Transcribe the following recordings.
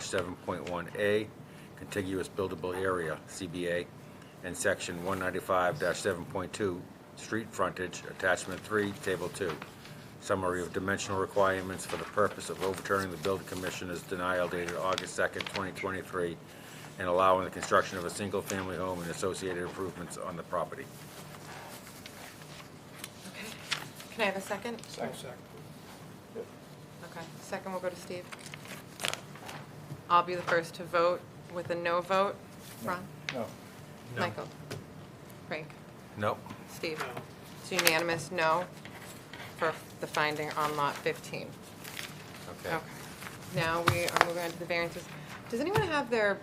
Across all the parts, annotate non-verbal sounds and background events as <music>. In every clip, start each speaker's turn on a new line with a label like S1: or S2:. S1: seven point one A, contiguous buildable area, CBA, and section one ninety-five seven point two, street frontage, attachment three, table two. Summary of dimensional requirements for the purpose of overturning the building commissioner's denial dated August second, twenty twenty-three, and allowing the construction of a single-family home and associated improvements on the property.
S2: Okay. Can I have a second?
S3: Second.
S2: Okay, second will go to Steve. I'll be the first to vote with a no vote. Ron?
S3: No.
S2: Michael? Frank?
S1: Nope.
S2: Steve? It's unanimous, no, for the finding on lot 15.
S1: Okay.
S2: Okay. Now we are moving on to the variances. Does anyone have their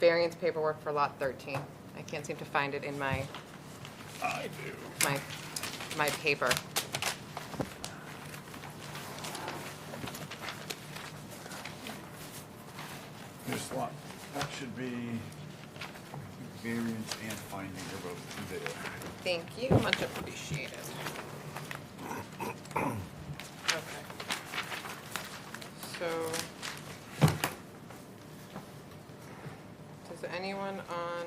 S2: variance paperwork for lot 13? I can't seem to find it in my,
S3: I do.
S2: my, my paper.
S3: This lot, that should be variance and finding are both there.
S2: Thank you, much appreciated. Okay. So, does anyone on,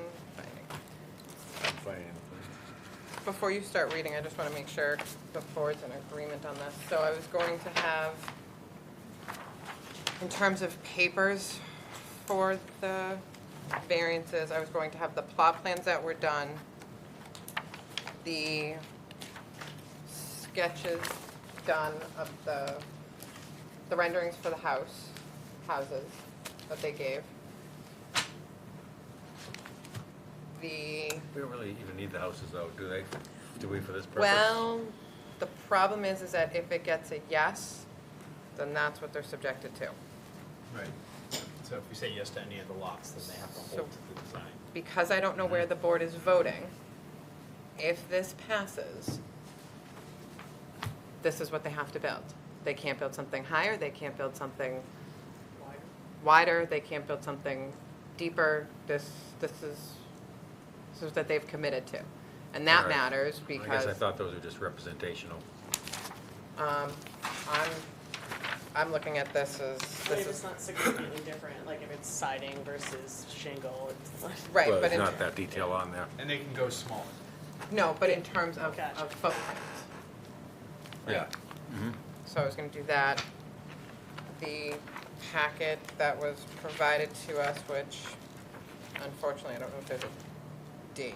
S2: before you start reading, I just want to make sure the board's in agreement on this. So I was going to have, in terms of papers for the variances, I was going to have the plot plans that were done, the sketches done of the, the renderings for the house, houses that they gave. The
S1: We don't really even need the houses though, do they? Do we for this purpose?
S2: well, the problem is, is that if it gets a yes, then that's what they're subjected to.
S4: Right. So if we say yes to any of the lots, then they have to hold to the design.
S2: Because I don't know
S1: Mm-hmm.
S2: where the board is voting, if this passes, this is what they have to build. They can't build something higher, they can't build something wider, they can't build something deeper. This, this is, this is what they've committed to. And that
S1: Right.
S2: matters
S1: I guess
S2: because.
S1: I thought those were just representational.
S2: Um, I'm, I'm looking at this as,
S5: But
S2: this
S5: if it's
S2: is,
S5: not significantly different, like if it's siding versus shingle, it's <laughs> like.
S2: right,
S1: Well,
S2: but
S1: there's
S2: in,
S1: not that detail on there.
S4: And they can go smaller.
S2: no, but in terms of,
S5: Gotcha.
S2: of footprint.
S1: Yeah.
S2: So I was gonna do that. The packet that was provided to us, which unfortunately, I don't know if there's a date.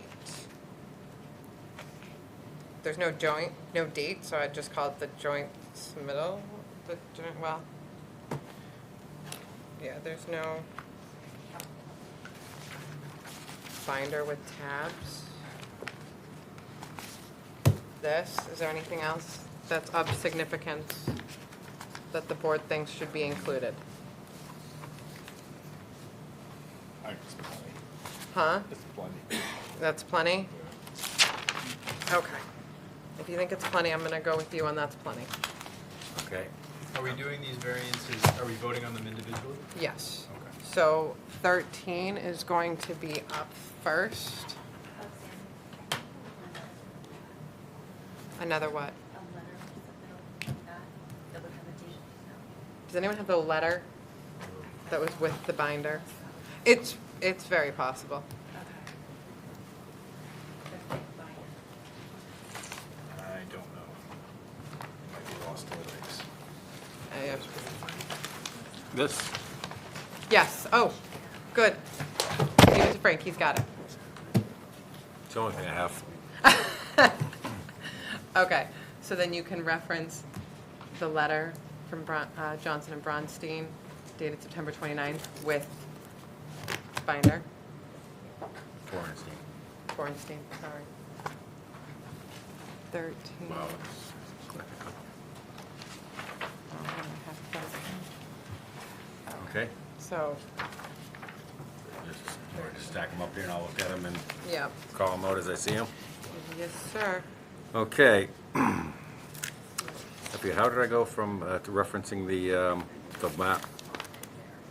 S2: There's no joint, no date, so I just call it the joint submittal, the joint, well. Yeah, there's no binder with tabs. This, is there anything else that's of significance that the board thinks should be included?
S3: It's plenty.
S2: Huh?
S3: It's plenty.
S2: That's plenty? Okay. If you think it's plenty, I'm gonna go with you on that's plenty.
S1: Okay.
S4: Are we doing these variances, are we voting on them individually?
S2: Yes.
S4: Okay.
S2: So 13 is going to be up first. Another what? Does anyone have the letter that was with the binder? It's, it's very possible.
S4: I don't know. It might be lost in the mix.
S2: I, uh,
S1: This,
S2: Yes, oh, good. Give it to Frank, he's got it. <laughs>
S1: it's the only thing I have.
S2: Okay, so then you can reference the letter from Bron- uh, Johnson and Bronstein dated September 29th with binder,
S1: Florentine.
S2: Bornstein, sorry. 13.
S1: Wow.
S2: Oh, I have 13.
S1: Okay.
S2: So,
S1: Just, we're just stack them up here and I'll look at them and
S2: yeah,
S1: call them out as I see them.
S2: yes, sir.
S1: Okay. <clears throat> Okay, how did I go from uh, to referencing the, um, the map?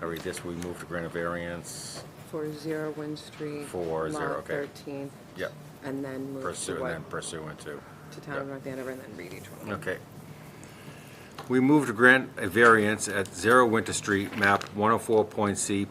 S1: I read this, we moved to grant a variance.
S2: 40 Wynn Street.
S1: Four zero,
S2: lot
S1: okay.
S2: 13,
S1: Yep.
S2: and then move
S1: Pursue
S2: to
S1: and
S2: what?
S1: then pursuant to.
S2: To
S1: yeah.
S2: Town of North Andover and then read each one.
S1: Okay. oh We move to grant a variance at Zero Winter Street, map 104.C,